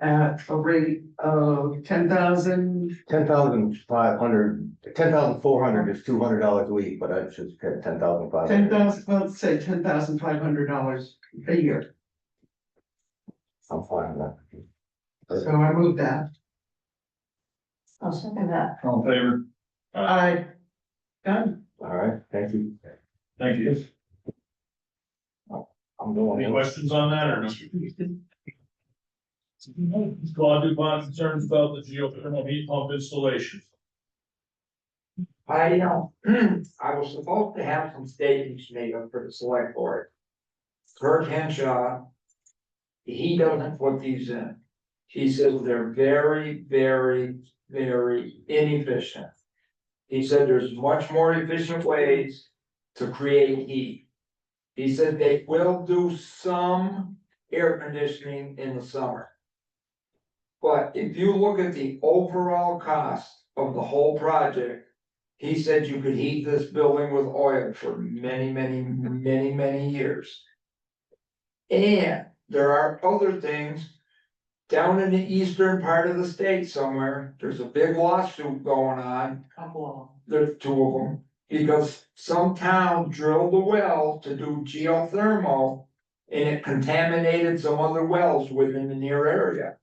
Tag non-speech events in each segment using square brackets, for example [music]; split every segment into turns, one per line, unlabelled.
at a rate of ten thousand,
Ten thousand five hundred, ten thousand four hundred is two hundred dollars a week, but I should get ten thousand five
ten
hundred.
thousand, let's say ten thousand five hundred dollars a year.
I'm fine with that.
So I move that.
I'll second that.
All in favor?
I, done.
All right, thank you.
Thank you.
I'm going.
Any
in.
questions on that or no? Claude Dubon concerns about the geothermal heat pump installation.
I, you know, [clears throat] I was supposed to have some statements made up for the select board. Kurt Henshaw. He doesn't put these in. He says they're very, very, very inefficient. He said there's much more efficient ways to create heat. He said they will do some air conditioning in the summer. But if you look at the overall cost of the whole project. He said you could heat this building with oil for many, many, many, many years. And there are other things. Down in the eastern part of the state somewhere, there's a big lawsuit going on,
Couple
there's two of them. Because some town drilled a well to do geothermal. And it contaminated some other wells within the near area.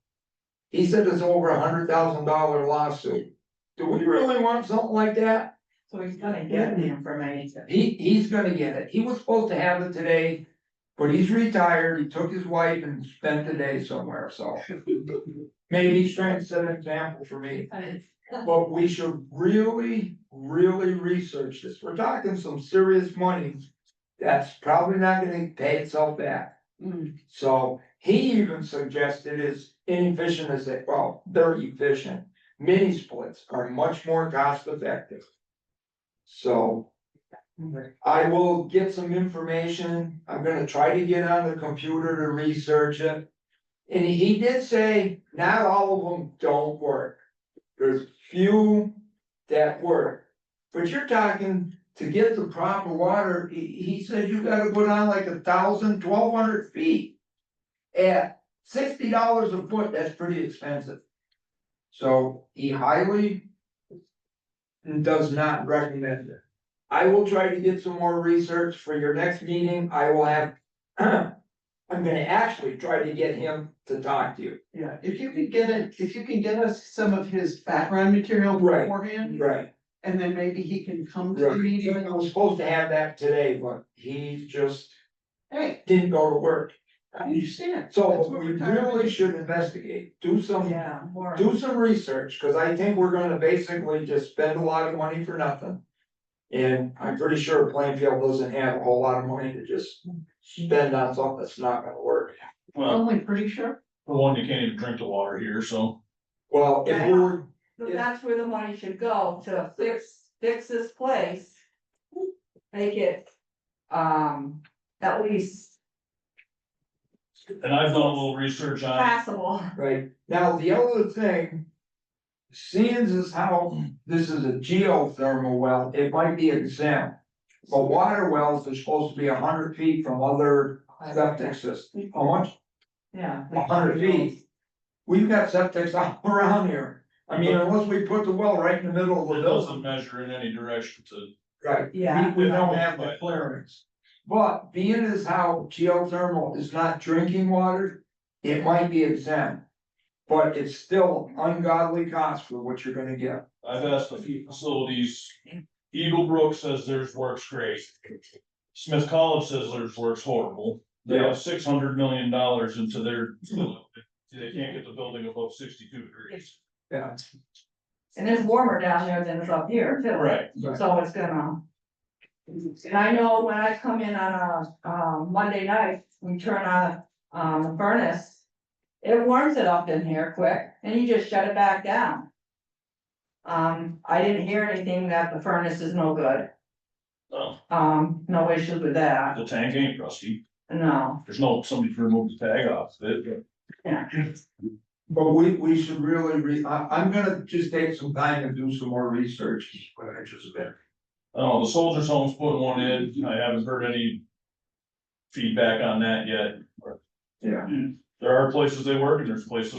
He said it's over a hundred thousand dollar lawsuit. Do we really want something like that?
So he's gonna get the information.
He, he's gonna get it, he was supposed to have it today, but he's retired, he took his wife and spent the day somewhere, so. Maybe he's trying to set an example for me, but we should really, really research this, we're talking some serious money. That's probably not gonna pay itself back,
of. Mm,
so he even suggested is inefficient as they, well, they're efficient. Mini splits are much more cost effective. So. I will get some information, I'm gonna try to get on the computer to research it. And he did say, not all of them don't work. There's few that work. But you're talking to get the proper water, he, he said you gotta go down like a thousand, twelve hundred feet. At sixty dollars a foot, that's pretty expensive. So he highly. Does not recommend it. I will try to get some more research for your next meeting, I will have. [clears throat] I'm gonna actually try to get him to talk to you.
Yeah, if you could get it, if you can get us some of his background material
Right.
beforehand,
Right.
and then maybe he can come to the
Right,
meeting.
even I was supposed to have that today, but he just
Hey,
didn't go to work.
I understand. That's
So
what
we
we're trying to
really
do.
should investigate, do some,
Yeah. more.
do some research, cause I think we're gonna basically just spend a lot of money for nothing. And I'm pretty sure Plainfield doesn't have a whole lot of money to just spend on something that's not gonna work.
Well,
Only pretty sure.
for one, you can't even drink the water here, so.
Well, if we were
So that's where the money should go to fix, fix this place. Make it, um, at least
And I've done a little research
Uh,
on,
passable.
Right, now, the other thing. Seeing as how this is a geothermal well, it might be exempt. But water wells are supposed to be hundred feet from other septic systems, how much,
Yeah.
a hundred feet? We've got septics all [laughs] around here, I mean, unless we put the well right in the middle of
it
the
doesn't
building,
measure in any direction to,
right?
Yeah.
We we don't have the clearance. But being as how geothermal is not drinking water, it might be exempt. But it's still ungodly cost for what you're gonna get.
I've asked a few facilities. Eagle Brook says theirs works great. Smith College says theirs works horrible. They have six hundred million dollars into their. They can't get the building above sixty-two degrees.
Yeah.
And it's warmer down there than it's up here too.
Right,
So it's gonna. And I know when I come in on a, um, Monday night, we turn on, um, the furnace. It warms it up in here quick, and you just shut it back down. Um, I didn't hear anything that the furnace is no good,
Oh,
um, no issues with that,
the tank ain't rusty.
no,
There's no, somebody to remove the tag off it.
yeah.
But we, we should really re, I, I'm gonna just take some time and do some more research. What I just said.
Oh, the soldiers' home's putting one in, I haven't heard any. Feedback on that yet,
Yeah.
there are places they work and there's places